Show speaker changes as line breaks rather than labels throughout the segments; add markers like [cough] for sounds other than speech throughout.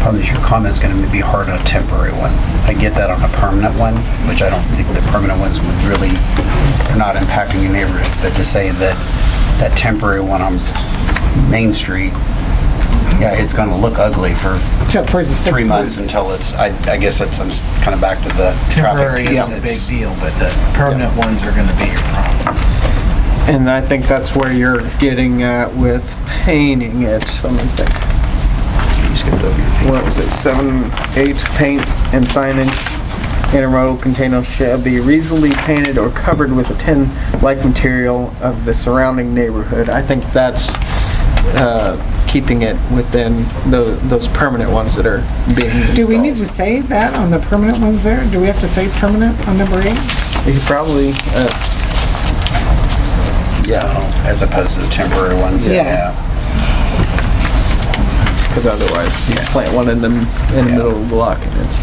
problem is your comment's going to be hard on a temporary one. I get that on a permanent one, which I don't think the permanent ones would really, are not impacting your neighborhood, but to say that, that temporary one on Main Street, yeah, it's going to look ugly for
Except for the six
three months
months.
until it's, I, I guess that's, I'm kind of back to the
Temporary
traffic
is
piece.
a big
It's-
deal, but the permanent ones are gonna be your problem.
And I think that's where you're getting at with painting it. Let me think.
You skipped over your page.
What was it? Seven, eight, paint and signage in a road container shall be reasonably painted or covered with a tin-like material of the surrounding neighborhood. I think that's uh, keeping it within tho- those permanent ones that are being installed.
Do we need to say that on the permanent ones there? Do we have to say permanent on number eight?
You could probably, uh,
Yeah, as opposed to the temporary ones.
Yeah.
Because otherwise, you plant one in the, in the middle of the block and it's,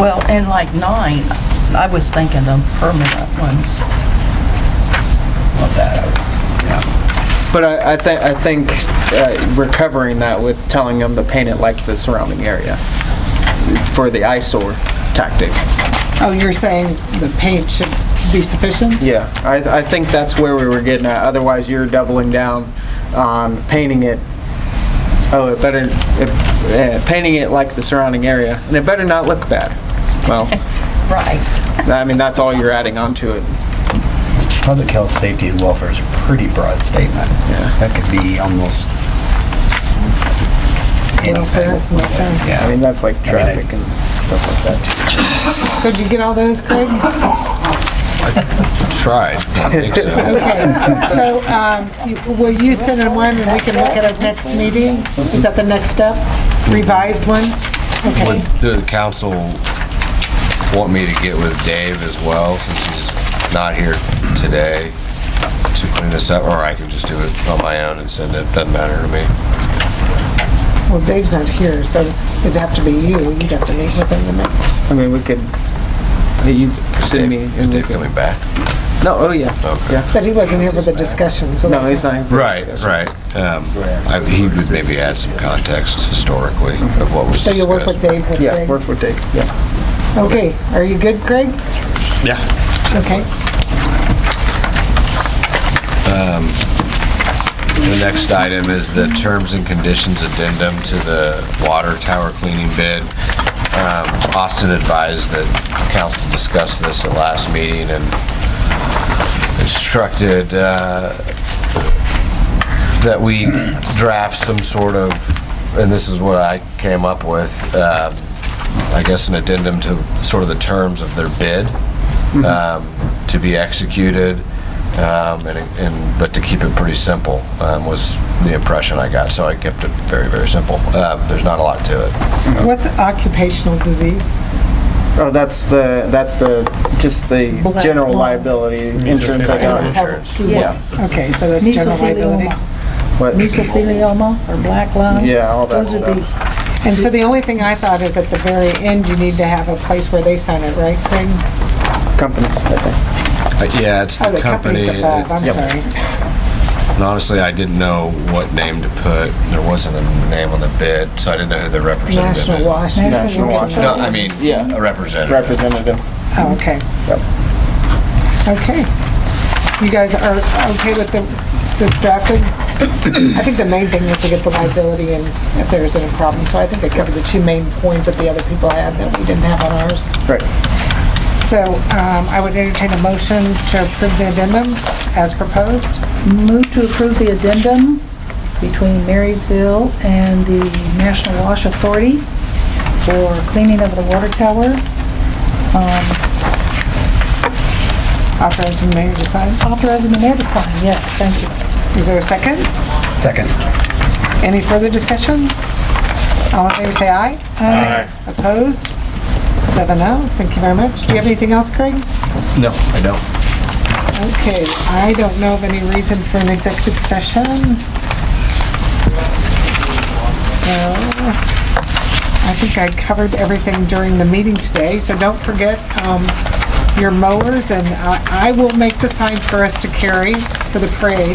Well, and like nine, I was thinking of permanent ones.
Love that.
but I, I think, I think uh, we're covering that with telling them to paint it like the surrounding area for the eyesore tactic.
Oh, you're saying the paint should be sufficient?
Yeah, I, I think that's where we were getting at, otherwise you're doubling down on painting it, oh, it better, it- uh, painting it like the surrounding area, and it better not look bad. Well,
Right.
I mean, that's all you're adding onto it.
Public health, safety, and welfare is a pretty broad statement.
Yeah.
That could be almost
Welfare,
anything.
welfare.
I
Yeah.
mean, that's like traffic and stuff like that too.
So did you get all those, Craig? [laughs]
Tried. I think so.
Okay, so um, you- will you send in one and we can look at it next meeting? Is that the next step? Revised one?
Would
Okay.
the council want me to get with Dave as well, since he's not here today, to clean this up, or I can just do it on my own and send it, doesn't matter to me.
Well, Dave's not here, so it'd have to be you. You'd have to meet with him. the next-
I mean, we could, you send me,
Is
and we
Dave
could,
coming back?
no, oh yeah,
Okay.
yeah.
But he wasn't here for the discussion, so.
No,
that's
he's not. here for
Right,
discussion.
right. Um, I- He would maybe add some context historically of what was
So you'll work with
discussed.
Dave with
Yeah,
Craig?
work with Dave, yeah.
Okay, are you good, Craig?
Yeah.
Okay.
The next item is the terms and conditions addendum to the water tower cleaning bid. Um, Austin advised that council discussed this at last meeting and instructed uh, that we draft some sort of, and this is what I came up with, um, I guess an addendum to sort of the terms of their bid um, to be executed, um, and, and, but to keep it pretty simple um, was the impression I got. So I kept it very, very simple. Uh, There's not a lot to it.
What's occupational disease?
Oh, that's the, that's the, just the general liability insurance I got.
Insurance.
Yeah,
Okay, so that's general liability.
Mesothelioma,
what,
mesothelioma or black lung.
yeah, all that
Those would be,
stuff.
And so the only thing I thought is at the very end, you need to have a place where they sign it, right, Craig?
Company, I think.
Uh, Yeah, it's
Oh,
the company.
above, I'm
Yep.
sorry.
And honestly, I didn't know what name to put. There wasn't a name on the bid, so I didn't know who the representative is.
National Wash.
National Wash.
No, I mean,
Yeah.
a representative.
representative.
Oh, okay.
Yep.
Okay. You guys are okay with the, this drafted? I think the main thing is to get the liability and if there's any problem. So I think they covered the two main points that the other people had that we didn't have on ours.
Right.
So um, I would entertain a motion to approve the addendum as proposed.
Move to approve the addendum between Marysville and the National Wash Authority for cleaning of the water tower.
Authorizing the mayor to sign.
Authorizing the mayor to sign, yes, thank you.
Is there a second?
Second.
Any further discussion? All in favor, say aye. Aye. Opposed? Seven oh. Thank you very much. Do you have anything else, Craig?
No, I don't.
Okay, I don't know of any reason for an executive session. So, I think I covered everything during the meeting today, so don't forget, um, your mowers, and I, I will make the signs for us to carry for the parade.